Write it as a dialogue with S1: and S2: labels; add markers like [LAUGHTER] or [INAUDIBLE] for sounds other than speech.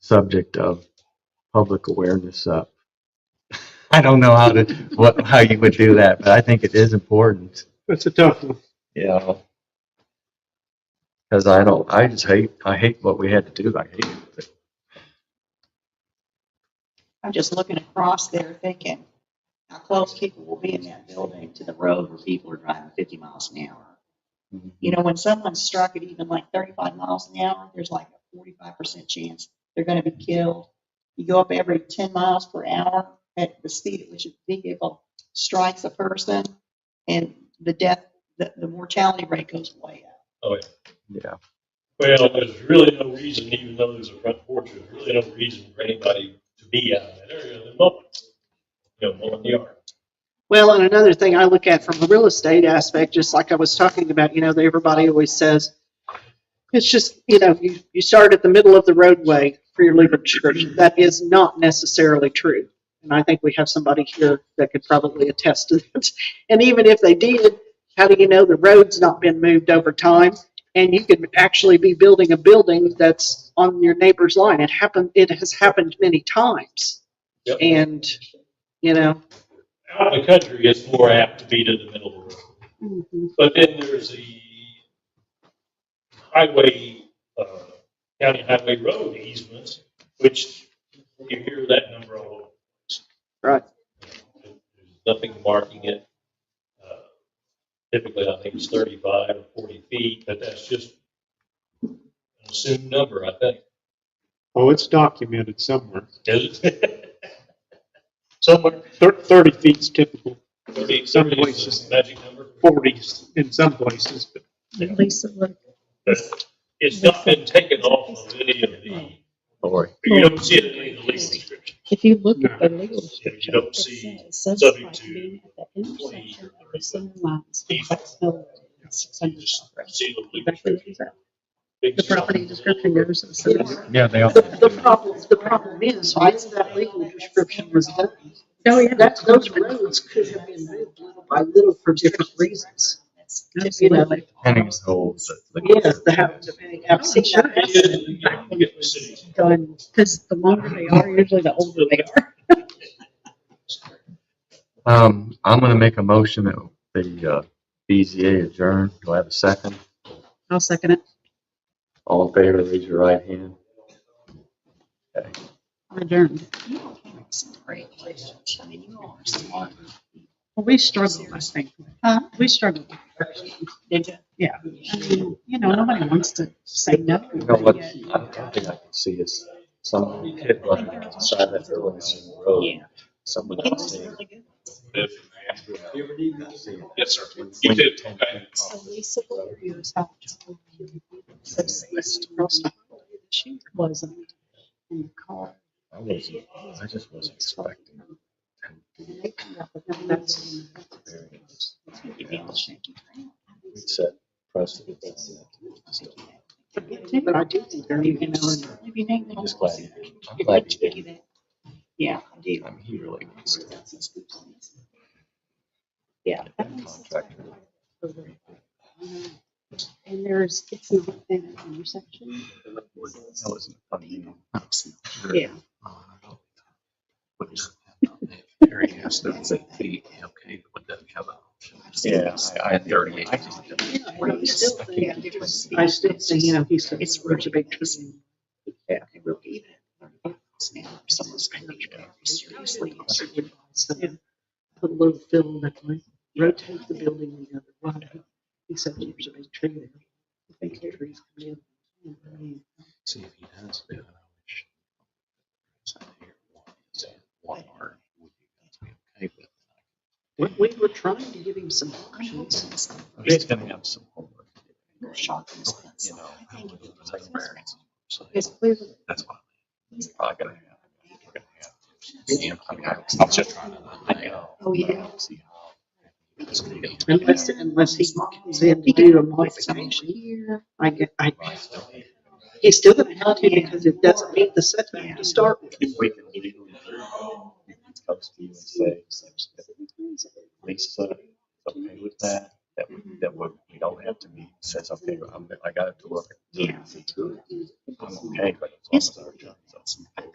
S1: subject of public awareness up. I don't know how to, what, how you would do that, but I think it is important,
S2: That's a tough one.
S1: you know. Cause I don't, I just hate, I hate what we had to do. I hate it.
S3: I'm just looking across there thinking, how close people will be in that building to the road where people are driving fifty miles an hour.
S1: Mm-hmm.
S3: You know, when someone's struck at even like thirty-five miles an hour, there's like a forty-five percent chance they're gonna be killed. You go up every ten miles per hour at the speed at which a vehicle strikes a person, and the death, the, the mortality rate goes way up.
S4: Oh, yeah.
S1: Yeah.
S4: Well, there's really no reason, even though there's a front porch, there's really no reason for anybody to be out in that area at the moment. You know, mowing the yard.
S2: Well, and another thing I look at from a real estate aspect, just like I was talking about, you know, that everybody always says, it's just, you know, you, you start at the middle of the roadway for your legal description. That is not necessarily true. And I think we have somebody here that could probably attest to this. [LAUGHS] And even if they did, how do you know the road's not been moved over time? And you could actually be building a building that's on your neighbor's line. It happened, it has happened many times.
S4: Yep.
S2: And, you know,
S4: Out in the country, it's more apt to be to the middle of the road. But then there's the highway, uh, county highway road easements, which you hear that number all over.
S2: Right.
S4: There's Nothing marking it. Uh, Typically, I think it's thirty-five or forty feet, but that's just an assumed number, I think.
S5: Oh, it's documented somewhere.
S4: Is it? [LAUGHS] Somewhere,
S5: Thir- Thirty feet's typical,
S4: thirty,
S5: Some
S4: thirty is
S5: places.
S4: the magic number.
S5: forties in some places, but
S3: At least it would.
S4: It's not been taken off of any of the,
S1: Don't worry.
S4: you don't see it in any of the lease description.
S6: If you look at the legal
S4: You
S6: description,
S4: don't
S6: it
S4: see E
S6: says, subject
S4: subject to
S6: being at the
S4: employee
S6: intersection
S4: or
S6: of the center lines,
S4: E
S6: complex mill road, and six
S4: You
S6: hundred
S4: just
S6: south road.
S4: see the lease
S6: Exactly what
S4: description.
S6: it says.
S4: Big
S6: The property description goes to the center.
S1: Yeah, they all.
S2: The, the problem, the problem is, once that legal description was done,
S6: Oh, yeah.
S2: that, those roads could have been moved little by little for different reasons. You know,
S6: Absolutely.
S1: Penning's holes.
S2: Yes, the house, depending, I've seen
S4: You
S2: that.
S4: didn't, you know, you get the cities.
S6: Done, Oh, because the longer they are, usually the older they are.
S1: Um, I'm gonna make a motion that the, uh, BZA adjourn. Do I have a second?
S6: I'll second it.
S1: All in favor, raise your right hand. Okay.
S6: I'm adjourned.
S3: You all came up with some great questions. I mean, you all are smart.
S6: Well, we struggled, I think.
S3: Huh?
S6: We struggled.
S3: Did you?
S6: Yeah. I mean, you know, nobody wants to say no.
S1: You know what, I don't think I can see is some kid running outside that building in the road.
S3: Yeah.
S1: Someone
S3: It
S1: else
S3: was
S1: seeing.
S3: really good.
S4: Yes, sir. You did, okay.
S6: Elisa Valerios helped.
S2: uh,
S6: Subsist across the hall. She wasn't in the car.
S1: I wasn't, I just wasn't expecting.
S6: And they come up with them, um, that's-
S1: We set precedent. on that. Just don't-
S2: But I do think they're, you know,
S3: Maybe Nate will-
S1: Just glad he did. I'm glad he did.
S3: Yeah, I do.
S1: I mean, he really was a
S3: Yeah.
S1: good contractor.
S6: And there's, it's not an intersection.
S1: That wasn't funny.
S6: Yeah.
S7: Harry has thirty-eight feet, okay, but doesn't have an option.
S1: Yeah, I, I, thirty-eight.
S7: I just don't
S2: Well, you still think-
S3: Yeah, different speed.
S2: I still say, you know, he's such
S3: It's
S2: a such a big tree.
S3: Yeah. It will be that. Now, if someone's going to be seriously.
S2: So, Put a little fill in that way, rotate the building the other way. He said there's a big tree there. I think the trees come in. you know, I mean,
S7: see if he does do it. So here, one, is that one art, would you guys be okay with?
S2: We, we were trying to give him some options.
S7: He's gonna have some homework,
S3: Shocking.
S7: you know.
S3: I think it was like-
S7: So
S6: Yes, please.
S7: that's why.
S3: He's
S7: probably gonna have. we're gonna have- Yeah, I mean, I- I'm just trying to. I know.
S3: Oh, yeah.
S7: See how- it's gonna get-
S2: Unless, unless he comes in to do a modification,
S3: Here.
S2: I get, I, he's still gonna have to because it doesn't meet the setback to start with.
S1: If we can legally. Comes to you and say, Lisa, okay with that, that, we- that we, we don't have to meet, says, okay, I'm, I got it to work.
S3: Yeah.
S1: I'm okay, but it's
S3: Yes.
S1: almost our job.